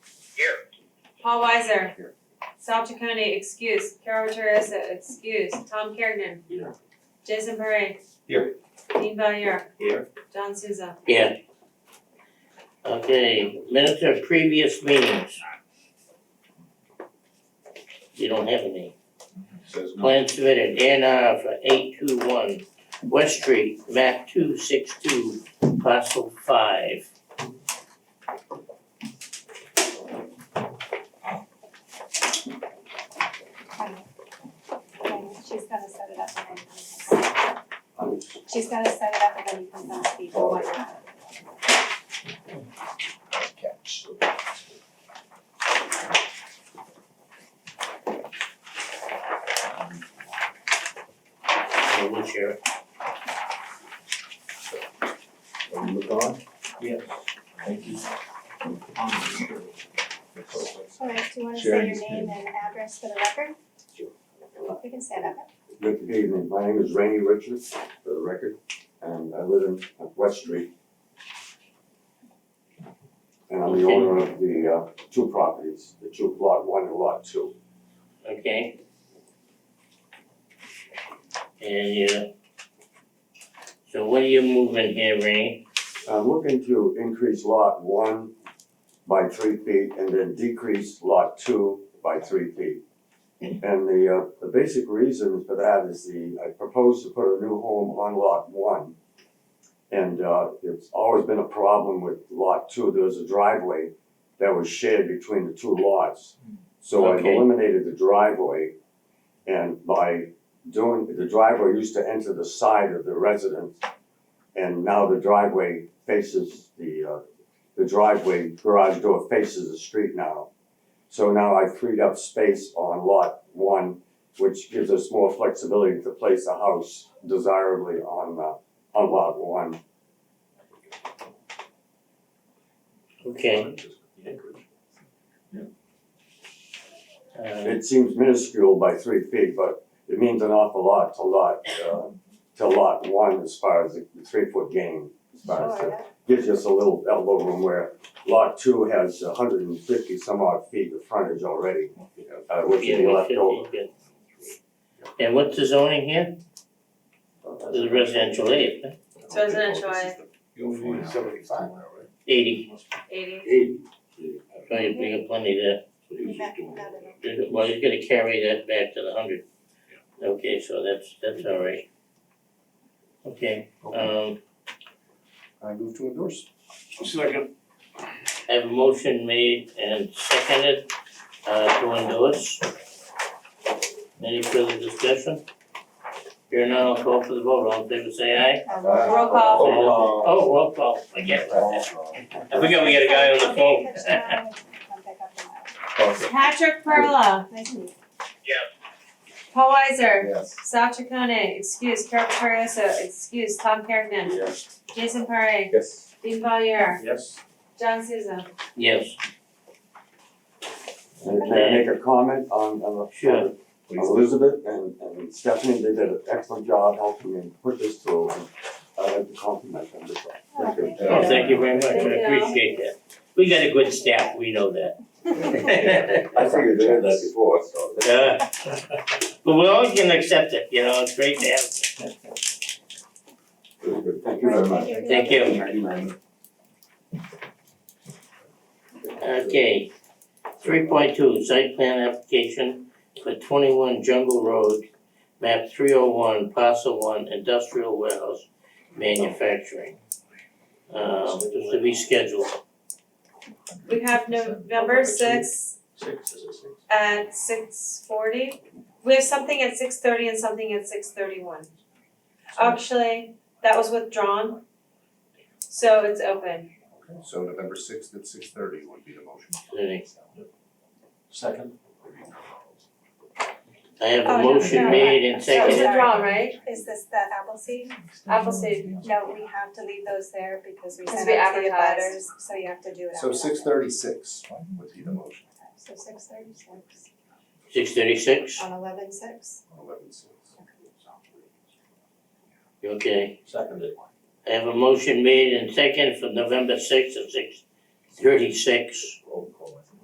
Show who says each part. Speaker 1: Paul Weiser.
Speaker 2: Here.
Speaker 1: Sal Chaconi, excuse. Carol Teresa, excuse. Tom Kergnen.
Speaker 2: Here.
Speaker 1: Jason Parre.
Speaker 2: Here.
Speaker 1: Dean Valier.
Speaker 2: Here.
Speaker 1: John Souza.
Speaker 3: Yeah. Okay, minutes of previous meetings. You don't have any.
Speaker 2: Says no.
Speaker 3: Plan submitted, A and R for eight two one West Street, map two six two, parcel five.
Speaker 4: Okay, she's gotta set it up and then you can sign. She's gotta set it up and then you can sign the one.
Speaker 2: Catch.
Speaker 3: Uh, What's your,
Speaker 2: Are you gone?
Speaker 3: Yes.
Speaker 2: Thank you.
Speaker 4: Alright, do you wanna say your
Speaker 2: Sharon's
Speaker 4: name and address for the record?
Speaker 2: Sure.
Speaker 4: You can stand up.
Speaker 5: Good evening, my name is Rainey Richards, for the record, and I live in uh, West Street. And I'm the
Speaker 3: Okay.
Speaker 5: owner of the uh two properties, the two lot one and lot two.
Speaker 3: okay? And you, so what are you moving here, Rainey?
Speaker 5: I'm looking to increase lot one by three feet and then decrease lot two by three feet. And the uh the basic reason for that is the, I propose to put a new home on lot one. And uh it's always been a problem with lot two, there was a driveway that was shared between the two lots. So I've
Speaker 3: Okay.
Speaker 5: eliminated the driveway and by doing, the driveway used to enter the side of the residence. And now the driveway faces the uh the driveway garage door faces the street now. So now I've freed up space on lot one, which gives us more flexibility to place a house desirably on uh on lot one.
Speaker 3: Okay, uh,
Speaker 5: It seems minuscule by three feet, but it means an awful lot to lot uh to lot one as far as the three foot gain. As far as the,
Speaker 4: Sure,
Speaker 5: gives us a little elbow room where lot two has hundred and fifty some odd feet of frontage already, uh which
Speaker 3: yeah,
Speaker 5: is left
Speaker 3: we should
Speaker 5: over.
Speaker 3: be good. And what's the zoning here? This is residential eight, huh?
Speaker 1: It's residential, I
Speaker 2: You'll find out.
Speaker 3: eighty,
Speaker 1: eighty.
Speaker 3: so you bring up plenty there.
Speaker 4: you got got it.
Speaker 3: Well, he's gonna carry that back to the hundred. Okay, so that's, that's all right. Okay, um,
Speaker 2: I move to endorse.
Speaker 6: Second.
Speaker 3: I have a motion made and seconded, uh, to endorse. Any further discussion? Here now, I'll call for the vote, all in favor say aye.
Speaker 4: Um,
Speaker 1: Roll
Speaker 2: Uh,
Speaker 1: call.
Speaker 3: Oh, roll call, I get that. I forgot we got a guy on the phone.
Speaker 4: Okay, catch you now, and come back up tomorrow.
Speaker 1: Patrick Perla.
Speaker 4: Nice to meet you.
Speaker 1: Paul Weiser.
Speaker 2: Yes.
Speaker 1: Sal Chaconi, excuse. Carol Teresa, excuse. Tom Kergnen.
Speaker 2: Yes.
Speaker 1: Jason Parre.
Speaker 2: Yes.
Speaker 1: Dean Valier.
Speaker 2: Yes.
Speaker 1: John Souza.
Speaker 3: Yes,
Speaker 5: And can I make a comment on on the
Speaker 3: Sure.
Speaker 5: Elizabeth and and Stephanie, they did an excellent job helping me put this through. and I'd like to compliment them as well. Thank you.
Speaker 3: oh, thank you very much, I
Speaker 1: Thank you.
Speaker 3: appreciate that. We got a good staff, we know that.
Speaker 5: I figured they had that before, so.
Speaker 3: Yeah. But we always can accept it, you know, it's great to have.
Speaker 5: Thank you very much.
Speaker 3: Thank you. Okay, three point two, site plan application for twenty-one Jungle Road, map three oh one, parcel one, industrial warehouse manufacturing. Um, just to be scheduled,
Speaker 1: We have November sixth,
Speaker 2: Six, is it six?
Speaker 1: at six forty. We have something at six thirty and something at six thirty one. Actually, that was withdrawn. So it's open.
Speaker 2: Okay, so November sixth at six thirty would be the motion.
Speaker 3: Lenny.
Speaker 2: Second.
Speaker 3: I have
Speaker 1: Oh,
Speaker 3: a
Speaker 1: no,
Speaker 3: motion
Speaker 1: no,
Speaker 3: made and
Speaker 1: That was
Speaker 3: seconded,
Speaker 1: withdrawn, right?
Speaker 4: Is this the apple seed?
Speaker 1: Appleseed.
Speaker 4: No, we have to leave those there because we
Speaker 1: Because
Speaker 4: sent
Speaker 1: we
Speaker 4: out to the
Speaker 1: advertised.
Speaker 4: butters, so you have to do it after
Speaker 2: So
Speaker 4: that.
Speaker 2: six thirty-six would be the motion,
Speaker 4: So six thirty-six
Speaker 3: six thirty-six,
Speaker 4: on eleven six.
Speaker 2: eleven six.
Speaker 3: okay.
Speaker 2: Seconded.
Speaker 3: I have a motion made and seconded for November sixth at six thirty-six.
Speaker 2: Roll call.